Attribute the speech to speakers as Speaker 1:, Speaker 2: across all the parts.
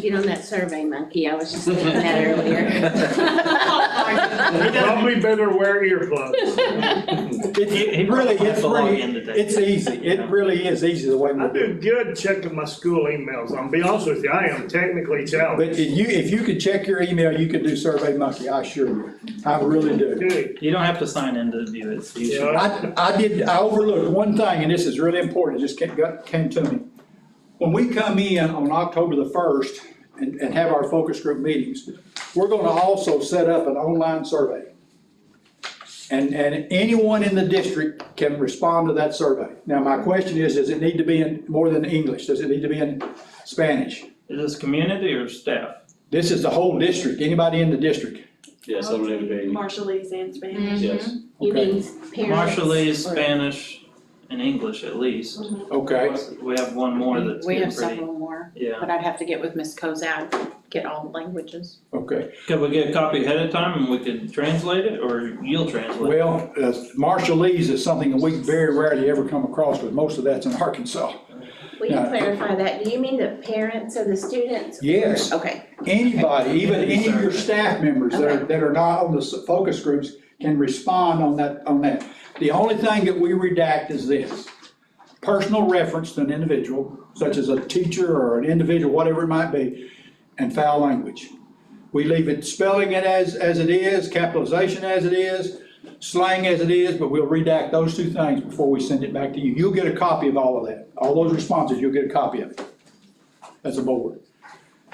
Speaker 1: Get on that survey monkey, I was just thinking that earlier.
Speaker 2: Probably better wear earplugs.
Speaker 3: It really, it's pretty,
Speaker 4: pretty.
Speaker 3: it's easy, it really is easy the way we
Speaker 2: I
Speaker 3: do it.
Speaker 2: do good checking my school emails. I'll be honest with you, I am technically
Speaker 3: But
Speaker 2: challenged.
Speaker 3: if you, if you could check your email, you could do Survey Monkey, I assure you, I really do.
Speaker 2: Dude,
Speaker 4: You don't have to sign into view it, so you
Speaker 2: you
Speaker 4: should.
Speaker 2: know,
Speaker 3: I, I did, I overlooked one thing, and this is really important, it just came, got, came to me. When we come in on October the first and, and have our focus group meetings, we're gonna also set up an online survey. And, and anyone in the district can respond to that survey. Now, my question is, does it need to be in more than English? Does it need to be in Spanish?
Speaker 4: Is this community or staff?
Speaker 3: This is the whole district, anybody in the district.
Speaker 5: Yes, it would be,
Speaker 6: Mm-hmm.
Speaker 7: Marshallese and Spanish.
Speaker 5: yes.
Speaker 1: You
Speaker 3: Okay.
Speaker 1: mean parents?
Speaker 4: Marshallese,
Speaker 1: or-
Speaker 4: Spanish, and English at least.
Speaker 3: Okay,
Speaker 4: We have one more that's
Speaker 1: We
Speaker 4: getting
Speaker 1: have
Speaker 4: pretty,
Speaker 1: several more,
Speaker 4: yeah.
Speaker 1: but I'd have to get with Ms. Cozad, get all languages.
Speaker 3: okay.
Speaker 4: Could we get a copy ahead of time and we could translate it, or you'll translate? it?
Speaker 3: Well, uh, Marshallese is something that we very rarely ever come across, but most of that's in Arkansas.
Speaker 1: Will you
Speaker 3: No.
Speaker 1: clarify that? Do you mean the parents of the students?
Speaker 3: Yes,
Speaker 1: Okay,
Speaker 3: anybody, even any of your staff members that are, that are not on the s- focus groups can respond on that, on that. The only thing that we redact is this, personal reference to an individual, such as a teacher or an individual, whatever it might be, and foul language. We leave it, spelling it as, as it is, capitalization as it is, slang as it is, but we'll redact those two things before we send it back to you. You'll get a copy of all of that, all those responses, you'll get a copy of it as a board.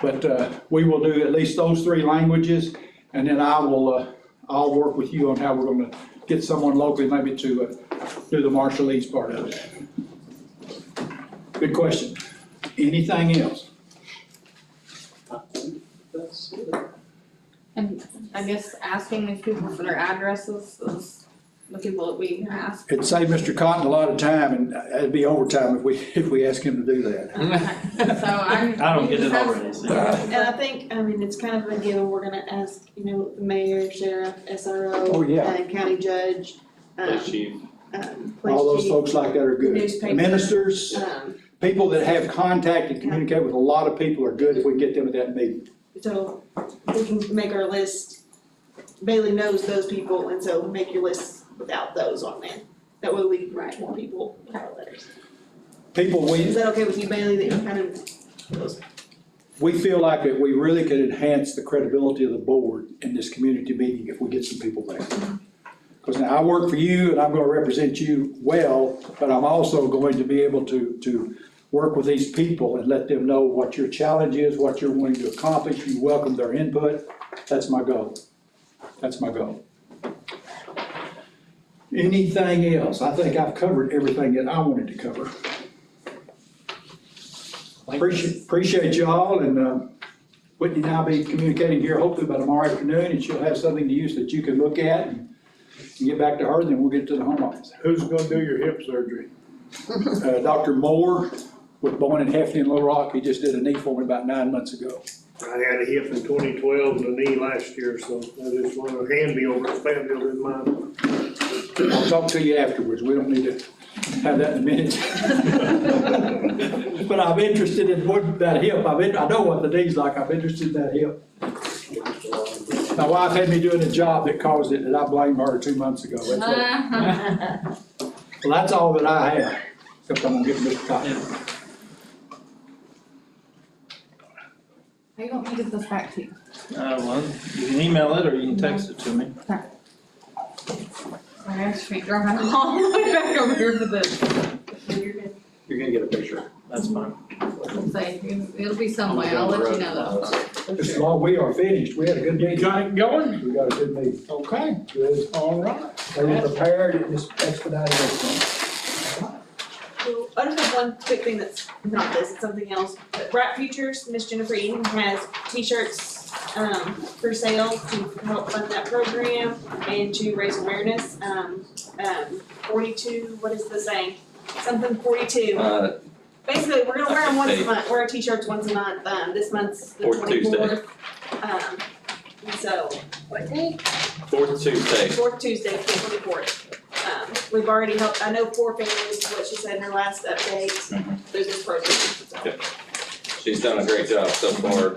Speaker 3: But uh, we will do at least those three languages, and then I will, uh, I'll work with you on how we're gonna get someone locally maybe to uh, do the Marshallese part of it. Good question. Anything else?
Speaker 6: And I guess asking these people for their addresses is the people that we ask.
Speaker 3: It'd save Mr. Cotton a lot of time, and uh, it'd be overtime if we, if we ask him to do that.
Speaker 6: So I'm.
Speaker 4: I don't get it already, so.
Speaker 7: And I think, um, I mean, it's kind of a given, we're gonna ask, you know, the mayor, sheriff, SRO.
Speaker 3: Oh, yeah.
Speaker 7: And uh, county judge, um,
Speaker 5: Yes, chief.
Speaker 7: um, police
Speaker 3: All those
Speaker 7: chief,
Speaker 3: folks like that are good.
Speaker 7: Newspaper.
Speaker 3: Ministers,
Speaker 7: Um,
Speaker 3: people that have contact and communicate with a lot of people are good if we can get them at that meeting.
Speaker 7: so we can make our list, Bailey knows those people, and so make your list without those on there. That way we can write more people with our letters.
Speaker 3: People we,
Speaker 7: Is that okay with you, Bailey, that you kind of,
Speaker 3: We feel like that we really could enhance the credibility of the board in this community meeting if we get some people there. Because now I work for you and I'm gonna represent you well, but I'm also going to be able to, to work with these people and let them know what your challenge is, what you're wanting to accomplish, you welcome their input. That's my goal. That's my goal. Anything else? I think I've covered everything that I wanted to cover. Appreciate, appreciate y'all and, uh, Whitney and I'll be communicating here hopefully by tomorrow afternoon and she'll have something to use that you can look at and and get back to her, then we'll get to the home office.
Speaker 2: Who's gonna do your hip surgery?
Speaker 3: Uh, Dr. Moore with Bowen and Hefty in Little Rock, he just did a knee for me about nine months ago.
Speaker 2: I had a hip in twenty twelve and a knee last year, so that is one of the handy over at Fayetteville in mine.
Speaker 3: I'll talk to you afterwards, we don't need to have that in a minute. But I'm interested in what, that hip, I've been, I know what the knee's like, I'm interested in that hip. My wife had me doing a job that caused it, and I blamed her two months ago, that's what.
Speaker 6: Uh-huh.
Speaker 3: Well, that's all that I have, except I'm gonna give Mr. Cotton.
Speaker 4: Uh,
Speaker 6: Are you want me to get this back to you?
Speaker 4: Uh, well, you can email it or you can text it to me.
Speaker 6: My ass ain't driving all the way back over here for this.
Speaker 4: You're gonna get a picture. That's fine.
Speaker 6: Let's say, it'll be somewhere, Oh, I'll let you know though.
Speaker 3: As long we are finished, we had a good meeting. Got it going? We got a good meeting.
Speaker 4: Okay.
Speaker 3: Good.
Speaker 4: All right.
Speaker 3: They were prepared, it just expedited everything.
Speaker 7: Well, I just have one quick thing that's not this, it's something else. But Bright Futures, Miss Jennifer Eden has t-shirts, um, for sale to help fund that program and to raise awareness. Um, um, forty-two, what is the saying? Something forty-two.
Speaker 5: Uh,
Speaker 7: Basically, we're gonna wear them once a month, wear our t-shirts once a month. Um, this month's the
Speaker 5: Fourth Tuesday.
Speaker 7: twenty-fourth. Um, and so,
Speaker 1: what day?
Speaker 5: Fourth Tuesday.
Speaker 7: Fourth Tuesday, the twenty-fourth. Um, we've already helped, I know four families, what she said in her last update,
Speaker 5: Mhm.
Speaker 7: there's this program, so.
Speaker 5: She's done a great job so far.